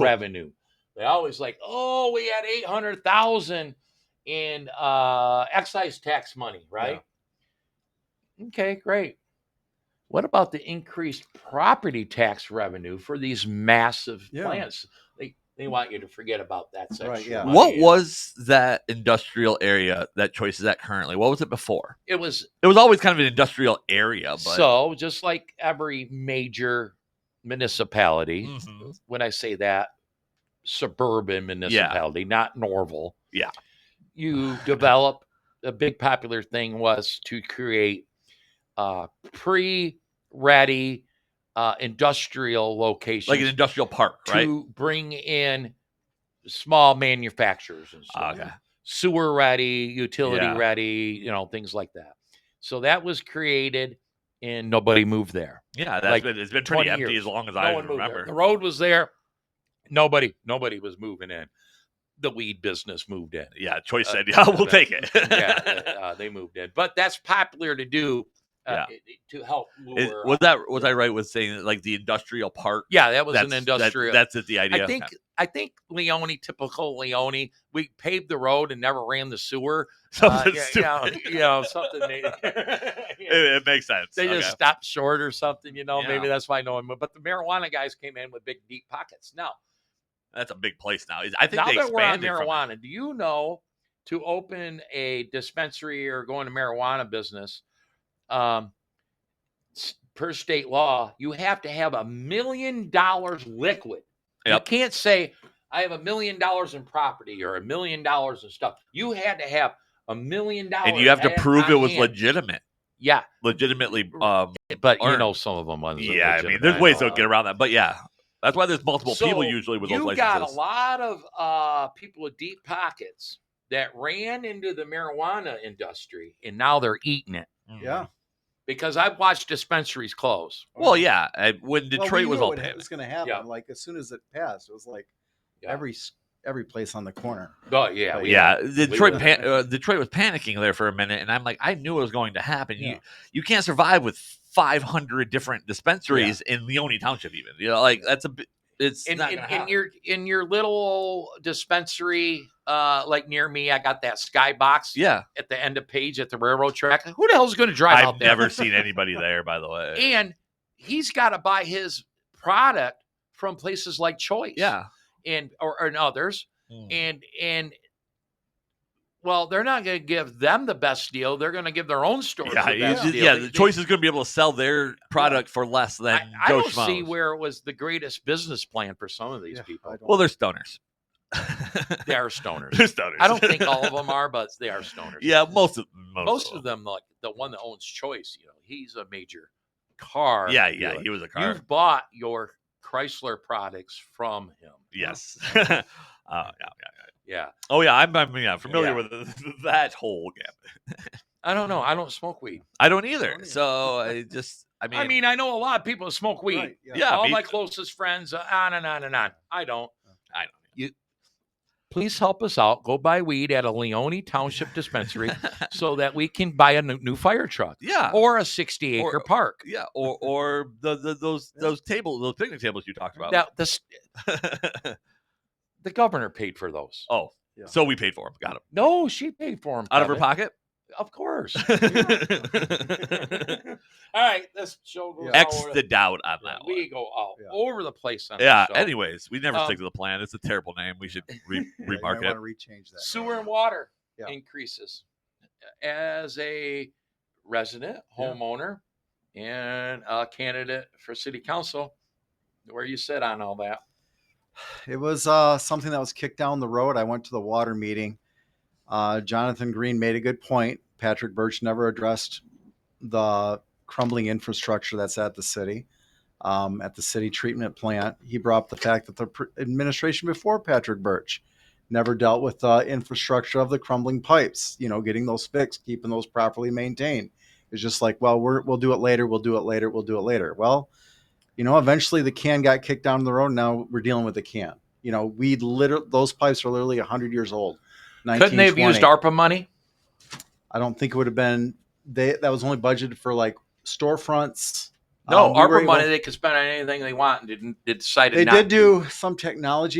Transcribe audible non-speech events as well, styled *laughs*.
revenue. They always like, oh, we had eight hundred thousand in uh, excise tax money, right? Okay, great. What about the increased property tax revenue for these massive Yeah. plants? They they want you to forget about that section. Right, yeah. of money. What was that industrial area that Choice is at currently? What was it before? it was It was always kind of an industrial area, but so just like every major Mm. municipality, Mhm. when I say that, suburban municipality, not Norval. Yeah. You develop a big popular thing was to create uh, pre-ready uh, industrial locations like an industrial park, right? to bring in small manufacturers and stuff. Ah, Okay. Sewer ready, utility Yeah. ready, you know, things like that. So that was created and nobody moved there. Yeah, that's like been it's been pretty 20 empty years. as long as No I one moved there. remember. The road was there. Nobody, nobody was moving in. The weed business moved in. Yeah, Choice Uh, said, "Yeah, *laughs* we'll but- take it." Yeah, *laughs* uh, they moved in. But that's popular to do uh, to help lure. Is- was that was I right with saying that, like the industrial park? yeah, that was that's, an that- industrial. that's it. The idea. I think I think Leone, typical Leone, we paved the road and never ran the *laughs* sewer. Uh, *laughs* something yeah, stupid. yeah, *laughs* you know, something. They, *laughs* It, it makes sense. they Okay. just stopped short or something, you know. Maybe Yeah. that's why no one. moved. But the marijuana guys came in with big deep pockets. Now that's a big place now. I think now they that we're on expanded from it. marijuana, do you know to open a dispensary or go into marijuana business, um, s- per state law, you have to have a million dollars liquid. Yep. You can't say I have a million dollars in property or a million dollars in stuff. You had to have a million dollars, and you have to at- prove on it was hand. legitimate, Yeah, legitimately. Um, but you Or- know some of them. ones are yeah, I mean, legitimate, there's ways know. to get around that, but yeah, that's why there's multiple people So, usually with you those got a licenses. lot of uh, people with deep pockets that ran into the marijuana industry and now they're eating it Mhm. Yeah. because I've watched dispensaries close. Well, yeah, I, when Well, we Detroit was knew all it paved. was going to happen. Yeah. Like as soon as it passed, it was like Yeah. every s- every place on the corner. Oh, yeah. Oh, we- yeah, Detroit were- pan- uh, Detroit was panicking there for a minute, and I'm like, I knew it was going to happen. Yeah. You you can't survive with 500 different dispensaries in Leone Township, even. You know, like that's a bi- it's In, not in, gonna in happen. your in your little dispensary, uh, like near me, I got that skybox yeah. at the end of page at the railroad track. Who the hell's going to drive I've out there? *laughs* never seen anybody there, by the way. And he's got to buy his product from places like Choice, yeah, and or, or and others. Mm. and and well, they're not going to give them the best deal. They're going to give their own stores yeah, the you best just- deal. yeah. They- The they- choice is going to be able to sell their product for less than I, I Joe don't see Schmo's. where it was the greatest business plan for some of these Yeah, people. I don't- *laughs* Well, they're *laughs* stoners. They are stoners. *laughs* they're stoners. I don't think all of them are, but they are stoners. *laughs* yeah, most of most, most of them, like the one that owns Choice, you know, he's a major car. Yeah, yeah. dealer. He was a car. You've bought your Chrysler products from him. *laughs* Yes. Oh, uh, *laughs* yeah. Yeah, Oh yeah, I'm, I'm yeah, familiar Yeah. with *laughs* th- that whole game. I don't know. I don't smoke weed. I don't don't either. either. So I just I mean, I mean, I know a lot of people that smoke weed. Right, yeah, all me- my closest friends, uh, on and on and on. I don't. I don't. Please help us out. Go buy weed at a Leone Township *laughs* dispensary so that we can buy a n- new fire truck yeah, or a 60 acre Or- park. *laughs* yeah, or or the, the those Yeah. those tables, those picnic tables you talked about. Now, the, s- the governor paid for those. *laughs* oh, Yeah. so we paid for them. Got them No, she paid for them. out of *laughs* her pocket. Of course. *laughs* X All right, this show goes Yeah. all over the doubt on yeah, that one. We go all Yeah. over the place on this Yeah. show. Anyways, we never Um, stick to the plan. It's a terrible name. We should *laughs* re- remark I it. want to rechange that. sewer and water Yeah. increases as a resident Yeah. homeowner and a candidate for city council where you sit on all that It was uh, something that was kicked down the road. I went to the water meeting. Uh, Jonathan Green made a good point. Patrick Birch never addressed the crumbling infrastructure that's at the city, um, at the city treatment plant. He brought up the fact that the pr- administration before Patrick Birch never dealt with the infrastructure of the crumbling pipes, you know, getting those fixed, keeping those properly maintained. It's just like, well, we're, we'll do it later. We'll do it later. We'll do it later. Well, you know, eventually the can got kicked down the road. Now we're dealing with the can. You know, we literally those pipes are literally hundred years old. couldn't they have used 1920. arpa money I don't think it would have been they that was only budgeted for like storefronts, No, Um, we were Arbor able- money they could spend on anything they want, and didn't they decided They not did to. do some technology